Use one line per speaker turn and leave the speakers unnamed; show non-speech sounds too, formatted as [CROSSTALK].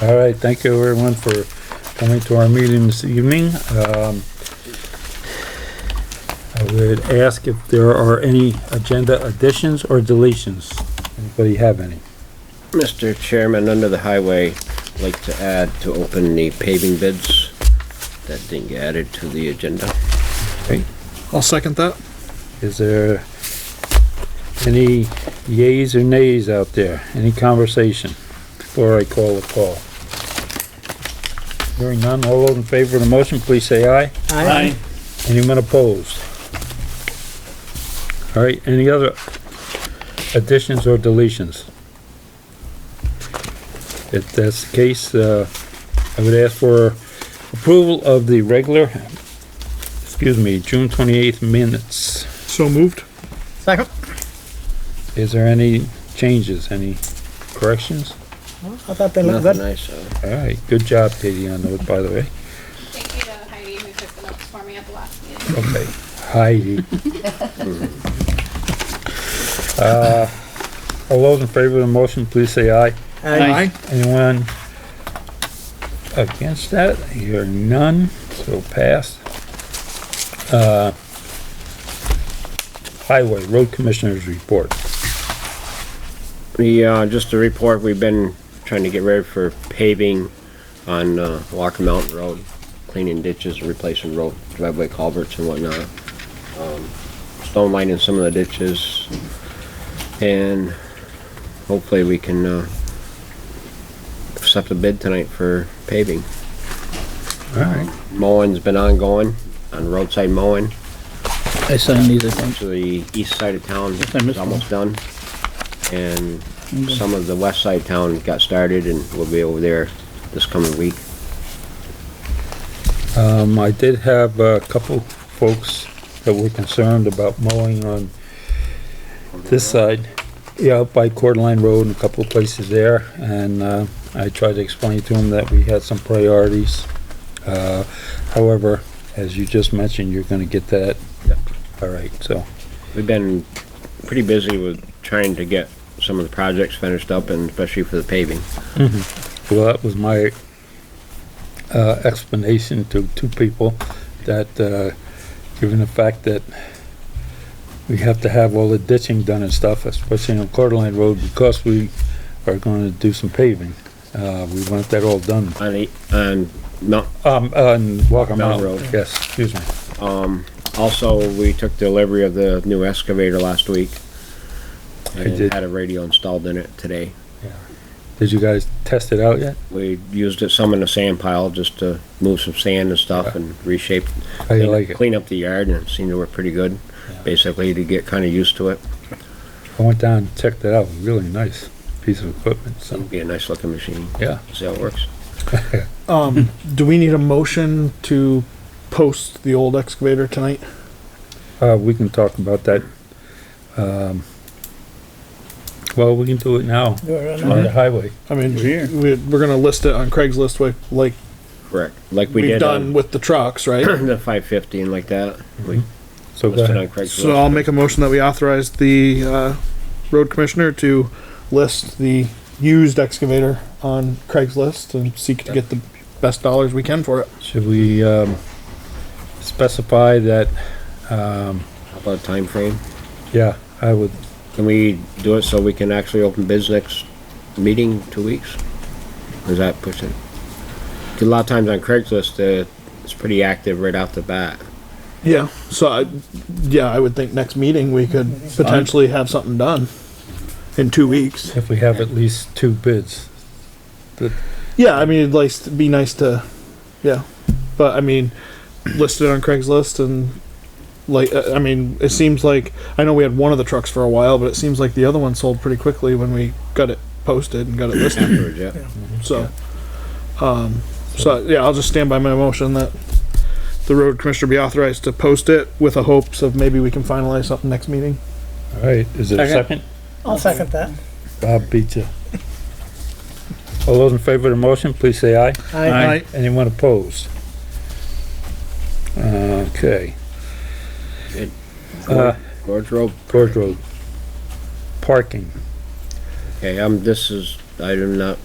All right, thank you everyone for coming to our meeting this evening. Um, I would ask if there are any agenda additions or deletions. Anybody have any?
Mr. Chairman, under the highway, I'd like to add to open the paving bids. That thing added to the agenda.
I'll second that.
Is there any yays or nays out there? Any conversation before I call the call? Hearing none, all those in favor of the motion, please say aye.
Aye.
Anyone opposed? All right, any other additions or deletions? If that's the case, uh, I would ask for approval of the regular, excuse me, June twenty-eighth minutes.
So moved.
Second?
Is there any changes, any corrections?
I thought they looked
Nothing
good.
I saw.
All right, good job, Katie, on those, by the way.
Thank you to Heidi who took the notes for me at the last meeting.
Okay, Heidi. Uh, All those in favor of the motion, please say aye.
Aye.
Anyone against that? Hearing none, so passed. Uh, Highway Road Commissioners Report.
The, uh, just a report, we've been trying to get ready for paving on, uh, Walker Mountain Road, cleaning ditches, replacing road driveway culverts and whatnot. Um, Stone lining some of the ditches. And hopefully we can, uh, accept a bid tonight for paving.
All right.
Mowing's been ongoing, on roadside mowing,
I signed these, I think.
to the east side of town,
I missed
is almost done. And some of the west side town got started and we will be over there this coming week.
Um, I did have a couple folks that were concerned about mowing on this side, yeah, up by Coeur d'Alene Road and a couple of places there, and, uh, I tried to explain to them that we had some priorities. Uh, however, as you just mentioned, you're gonna get that.
Yep.
All right, so,
We've been pretty busy with trying to get some of the projects finished up and especially for the paving.
well, that was my, uh, explanation to two people that, uh, given the fact that we have to have all the ditching done and stuff, especially on Coeur d'Alene Road, because we are gonna do some paving. Uh, we want that all done
On the, on, Mount-
Um, on Walker
Mountain
Mountain Road,
Road.
yes, excuse me.
also, we took delivery of the new excavator last week. And
did.
had a radio installed in it today.
Did you guys test it out yet?
We used it some in the sand pile just to move some sand and stuff and reshape
How you like it?
clean up the yard and it seemed to work pretty good, basically to get kind of used to it.
I went down and checked it out, really nice piece of equipment, so,
It'll be a nice looking machine.
yeah.
See how it works.
Um, [LAUGHS] do we need a motion to post the old excavator tonight?
Uh, we can talk about that. Um, well, we can do it now on the highway.
I mean, we're, we're gonna list it on Craigslist like, like
Correct. Like we
we've
did uh,
done
on
with the trucks, right?
[COUGHS] the five fifty and like that. We
Mm-hmm. So go
listed on
ahead.
So
Craigslist.
I'll make a motion that we authorize the, uh, road commissioner to list the used excavator on Craigslist and seek to get the best dollars we can for it.
Should we, um, specify that,
How about time frame?
yeah, I would,
Can we do it so we can actually open bids next meeting, two weeks? Or Is that pushing? 'Cause A lot of times on Craigslist, uh, it's pretty active right off the bat.
Yeah, so I, yeah, I would think next meeting we could potentially have something done in two weeks.
if we have at least two bids.
Yeah, I mean, it'd like to be nice to, yeah, but I mean, [CLEARS THROAT] listed on Craigslist and like, uh, I mean, it seems like I know we had one of the trucks for a while, but it seems like the other one sold pretty quickly when we got it posted and got it listed.
Afterwards, yeah.
So, um, so yeah, I'll just stand by my motion that the road commissioner be authorized to post it with the hopes of maybe we can finalize something next meeting.
All right, is there a second?
I'll second that.
Bob beat you. All those in favor of the motion, please say aye.
Aye.
Anyone opposed? Okay, Uh,
Gorge Road.
Gorge Road. Parking.
Okay, um, this is, I do not